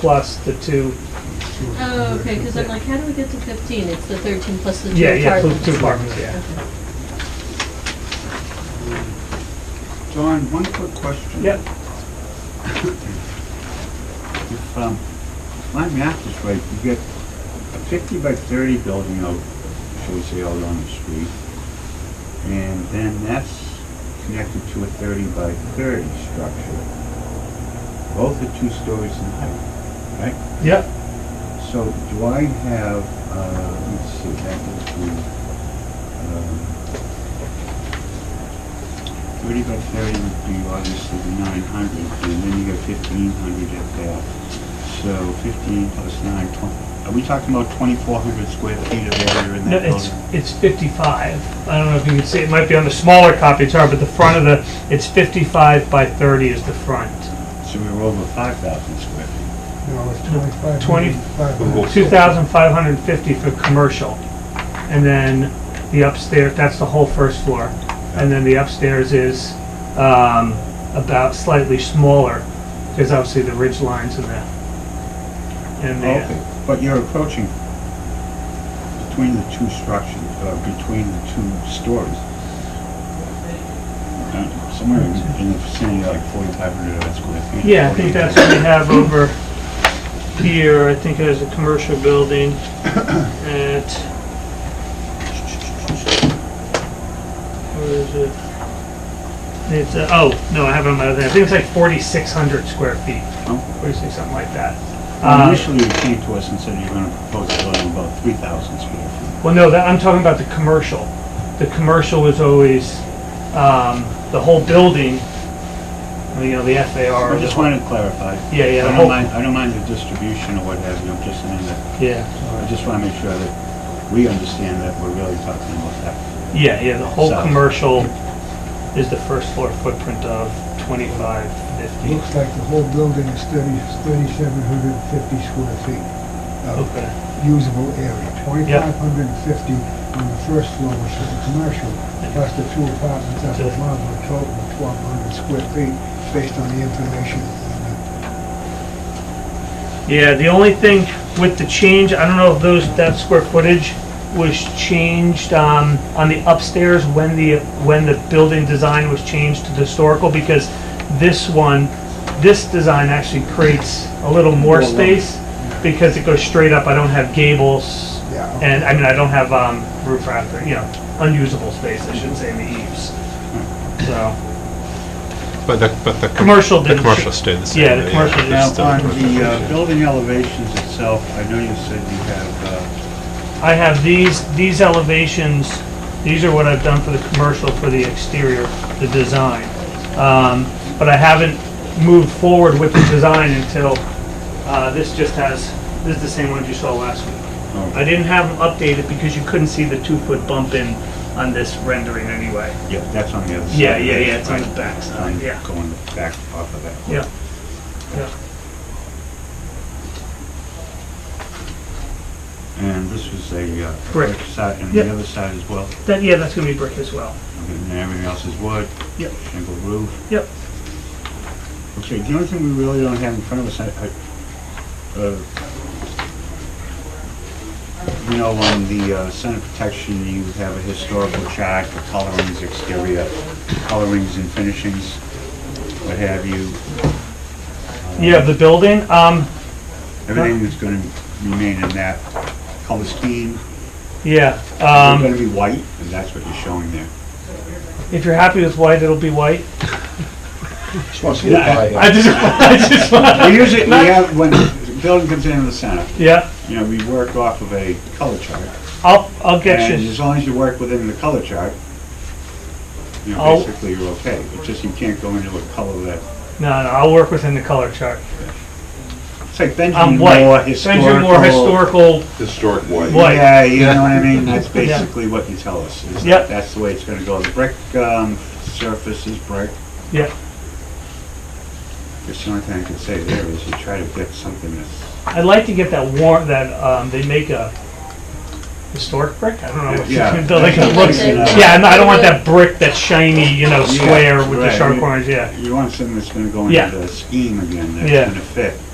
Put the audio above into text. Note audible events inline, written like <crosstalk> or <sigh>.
plus the two, Oh, okay, because I'm like, how do we get to fifteen? It's the thirteen plus the two yeah, yeah, pl- apartments. two apartments, yeah. John, one quick question. Yep, If, um, my math is right, you get a fifty by thirty building out, shall we say, out on the street. And then that's connected to a thirty by thirty structure. Both are two stories in height, right? yep, So do I have, uh, let's see, that would be, um, thirty by thirty would be obviously the nine hundred, and then you got fifteen hundred at that. So fifteen plus nine, tw- are we talking about twenty-four hundred square feet of area in no, that it's, building? it's fifty-five, I don't know if you can see, it might be on the smaller copy, it's hard, but the front of the, it's fifty-five by thirty is the front. So we were over five thousand square feet. No, it's twenty-five. Twenty- Five. Two thousand five hundred and fifty for commercial, and then the upstairs, that's the whole first floor, and then the upstairs is, um, about slightly smaller, because obviously the ridge lines and the, and the. Okay, but you're approaching between the two structures, uh, between the two stories. Uh, Somewhere in- in the vicinity, like forty-five hundred square feet. Yeah, I think that's what we have over here, I think it has a commercial building at, where is it? It's, uh, oh, no, I have it on my other, I think it's like forty-six hundred square feet, Oh. forty-six, something like that. Well, Um, Initially, you came to us and said you're gonna propose a building about three thousand square feet. Well, no, that, I'm talking about the commercial. The commercial was always, um, the whole building, you know, the FAR. I just wanted to clarify. Yeah, yeah, the I whole- don't mind, I don't mind the distribution or what have you, I'm just saying that, Yeah, I just wanna make sure that we understand that we're really talking about that. yeah, yeah, the whole So- commercial is the first floor footprint of twenty-five fifty. Looks like the whole building is thirty, thirty-seven hundred and fifty square feet of Okay, usable area. Twenty-five hundred and fifty on the first floor, which is the commercial, plus the two apartments at the Yeah. bottom, a total of twelve hundred square feet, based on the information. yeah, the only thing with the change, I don't know if those, that square footage was changed, um, on the upstairs when the, when the building design was changed to the historical, because this one, this design actually creates a little more More room. space, because it goes straight up, I don't have gables, Yeah. and, I mean, I don't have, um, roof rafter, you know, unusable space, I shouldn't say in the eaves, so. But the, but the. com- Commercial The didn't commercial sh- stayed the same. yeah, the commercial it's Now, still on commercial. the uh, building elevations itself, I know you said you have, uh, I have these, these elevations, these are what I've done for the commercial, for the exterior, the design. Um, But I haven't moved forward with the design until, uh, this just has, this is the same ones you saw last week. I uh, didn't have them updated because you couldn't see the two-foot bump in on this rendering anyway. yeah, that's on the other side. Yeah, yeah, yeah, it's on the back side, I'm yeah. Going back off of that. Yeah. Yeah. And this was a uh, Brick. brick side, and Yep. the other side as well, That, yeah, that's gonna be brick as well. Okay, and everything else is wood. Yep. Shingle roof. Yep. Okay, the only thing we really don't have in front of us, I, I, uh, you know, on the uh, center protection, you have a historical chart for colorings, exterior colorings and finishings, what have you. Yeah, the building, um, Everything is gonna remain in that color scheme. yeah. It's um, gonna be white, and that's what you're showing there. If you're happy with white, it'll be white. Just want to see the pie. I just, <laughs> I just <laughs> want, We usually, we have, when the building comes in the center, yeah, you know, we work off of a color chart. I'll, I'll get And you. as long as you work within the color chart, you know, I'll- basically you're okay. It's just you can't go into a color that, No, no, I'll work within the color chart. it's like Benjamin I'm Moore white. Send you historical. more historical, uh, Historic white. White. Yeah, you know what I mean? <laughs> That's Yeah. basically what you tell us. is that Yep. That's the way it's gonna go. The brick, um, surface is brick. yeah, Just the only thing I can say there is you try to get something that's, I'd like to get that warm, that, um, they make a historic brick, I don't know what you Yeah. can build, <laughs> like, it looks, Okay. yeah, and I don't want that brick that's shiny, you know, Yeah, square with the right. sharp corners, yeah. you want something that's gonna go Yeah. into the scheme again, Yeah. that's gonna fit.